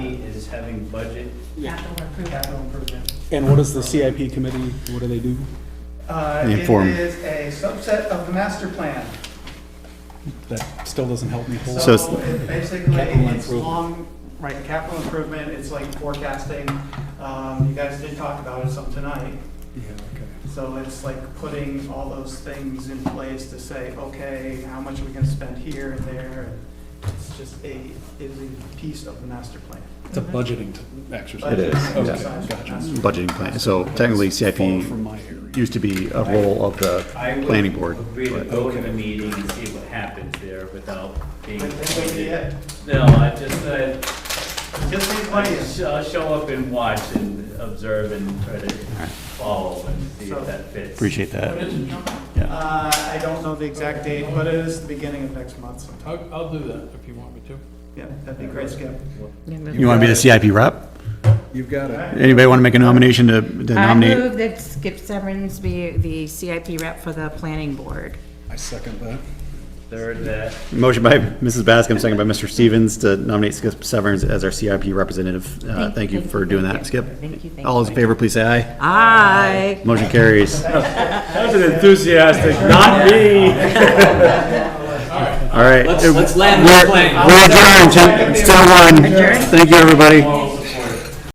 is having budget Capital improvement. capital improvement. And what is the CIP committee, what do they do? Uh, The It inform- is a subset of the master plan. That still doesn't help me a whole lot. So So it's- it basically, Capital it's improvement. long, right, capital improvement, it's like forecasting. Um, You guys did talk about it some tonight. Yeah, okay. So it's like putting all those things in place to say, okay, how much are we gonna spend here and there? It's just a, it is a piece of the master plan. It's a budgeting t- exercise. It is, Okay, yeah. gotcha. budgeting plan. So technically Far CIP from my area. used to be a role of the I would planning board. agree to but- go to the meeting and see what happens there without being. But that would be it. No, I just, uh, Just leave money in. I sh- I'll show up and watch and observe and try to follow and see So- if that fits. Appreciate that. Uh, I don't know the exact date, but it is the beginning of next month sometime. I'll, I'll do that if you want me to. Yeah, that'd be great, Skip. You want to be the CIP rep? You've got it. Anybody want to make a nomination to to I nominate? move that Skip Severns be the CIP rep for the planning board. I second that. Third, uh, that, Motion by Mrs. Bascom, second by Mr. Stevens to nominate Skip Severns as our CIP representative. Uh, Thank- Thank you thank for you, doing thank that, you. Skip. Thank you, thank All those in you. favor, please say aye. Aye. Motion carries. that's an enthusiastic, not me. All right. Let's, let's land this We're plane. we're adjourned, ten- it's still one. Adjourned? Thank you, everybody.